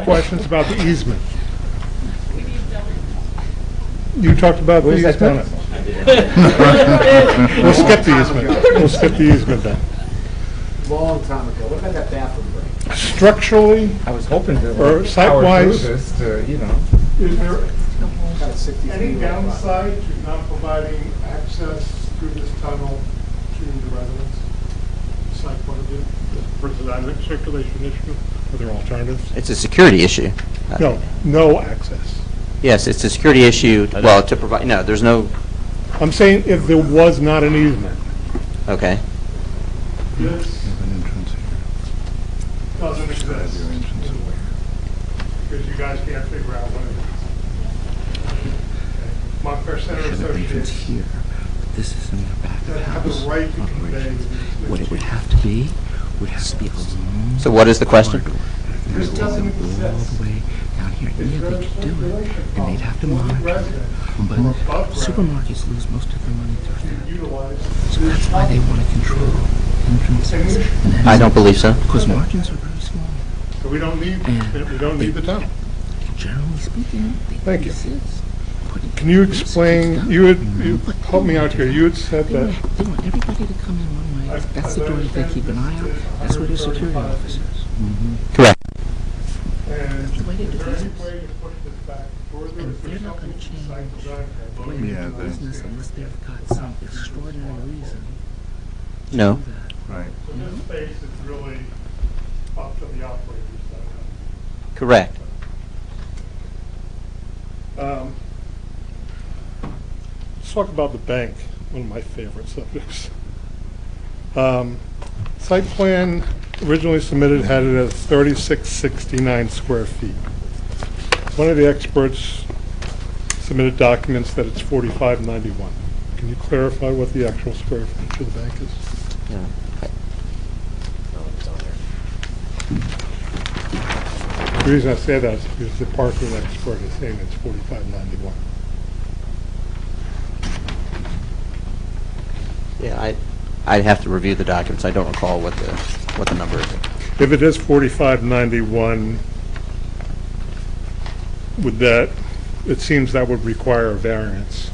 questions about the easement. You talked about the Where's that easement. We'll We'll skip the easement. We'll skip the easement then. Long time ago. What about that bathroom break? Structurally, I was hoping to. Or like, site-wise. power through this To, you know, is there About a 60 any feet long lot. downside to not providing access through this tunnel to the residents? Site point of view, for design circulation issue, are there alternatives? It's a security issue. Uh, No, no access. Yes, it's a security issue, well, to provide, no, there's no, I'm saying if there was not an easement. okay. This an entrance doesn't exist. Because you guys can't figure out what it is. Montclair Center have an entrance Associates here, but this is in the back of the that have house the right to convey. operation. What it the would have to be, would have to be a long So what is the question? corridor. And This it would go all doesn't exist. the way down here. It's Yeah, road they could do it, circulation and they'd have to problem. Local monitor it. But residents who are above ground supermarkets lose most of their money through that. to utilize So this that's why they tunnel. want to control entrances. and I don't believe so. Because margins are very small. So we don't need, we don't need the tunnel. Generally speaking, they Thank you. exist. But Can you explain, you had, you, help me out here, you had said They want, that, they want everybody to come in one way. That's the door that they keep an eye on. That's where the security officer is. Correct. and is The way they do there any business. way to push this back further? And Is there they're not something gonna to site change design? The way they do business unless they've got some extraordinary reason to No. do that. Right. So this space is really up to the operators. Correct. Um, Let's talk about the bank, one of my favorite subjects. Um, Site plan originally submitted had it as 3669 square feet. One of the experts submitted documents that it's 4591. Can you clarify what the actual square footage of the bank is? Yeah. The reason I say that is because the parking expert is saying it's 4591. Yeah, I, I'd have to review the documents, I don't recall what the, what the number is. If it is forty-five ninety-one, would that, it seems that would require a variance,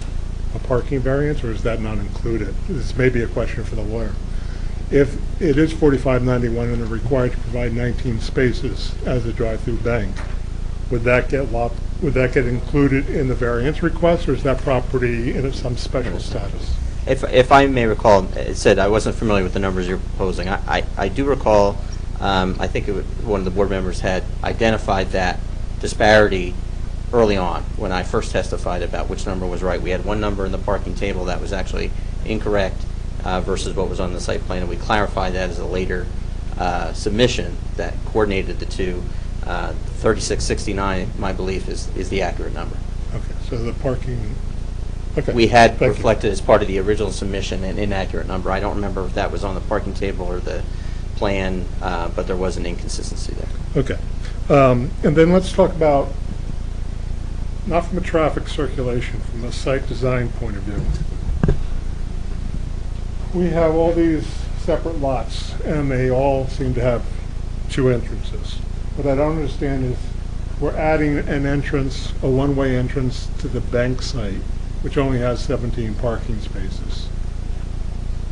a parking variance, or is that not included? This may be a question for the lawyer. If it is forty-five ninety-one and they're required to provide nineteen spaces as a drive-through bank, would that get lop, would that get included in the variance request, or is that property in some special status? If, if I may recall, it said, I wasn't familiar with the numbers you're proposing. I, I I do recall, um, I think it wa- one of the board members had identified that disparity early on, when I first testified about which number was right. We had one number in the parking table that was actually incorrect uh, versus what was on the site plan, and we clarified that as a later uh, submission that coordinated the two. Uh, 3669, my belief, is, is the accurate number Okay, so the parking, okay. we had Thank you. reflected as part of the original submission an inaccurate number. I don't remember if that was on the parking table or the plan, uh, but there was an inconsistency there. Okay. Um, And then let's talk about, not from a traffic circulation, from a site design point of view. We have all these separate lots, and they all seem to have two entrances. What I don't understand is, we're adding an entrance, a one-way entrance to the bank site, which only has 17 parking spaces,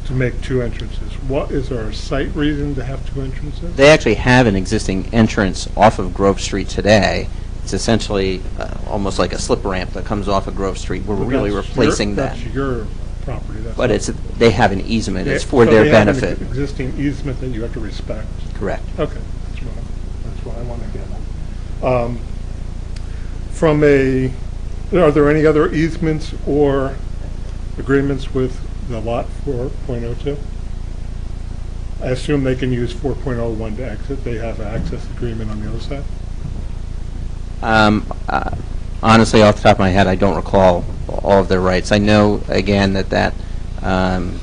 to make two entrances. What, is there a site reason to have two entrances? They actually have an existing entrance off of Grove Street today. It's essentially uh, almost like a slip ramp that comes off of Grove Street. We're But really that's your- replacing that. That's your property. that's But not- it's, they have an easement, it's Yeah, for so their they have an benefit. ex- Existing easement that you have to respect. Correct. Okay, that's what, that's what I want to get at. Um, From a, are there any other easements or agreements with the lot 4.02? I assume they can use 4.01 to exit, they have an access agreement on the other side? Um, uh, Honestly, off the top of my head, I don't recall all of their rights. I know, again, that that, um,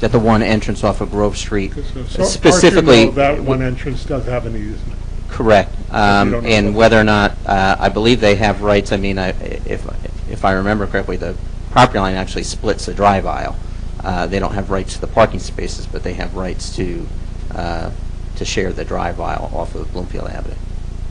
that the one entrance off of Grove Street 'Cause so- so far as you know, specifically... That one entrance does have an easement. Correct. you don't Um, know And what- whether or not, uh, I believe they have rights, I mean, I- if, if I remember correctly, the property line actually splits the drive aisle. Uh, They don't have rights to the parking spaces, but they have rights to, uh, to share the drive aisle off of Bloomfield Avenue.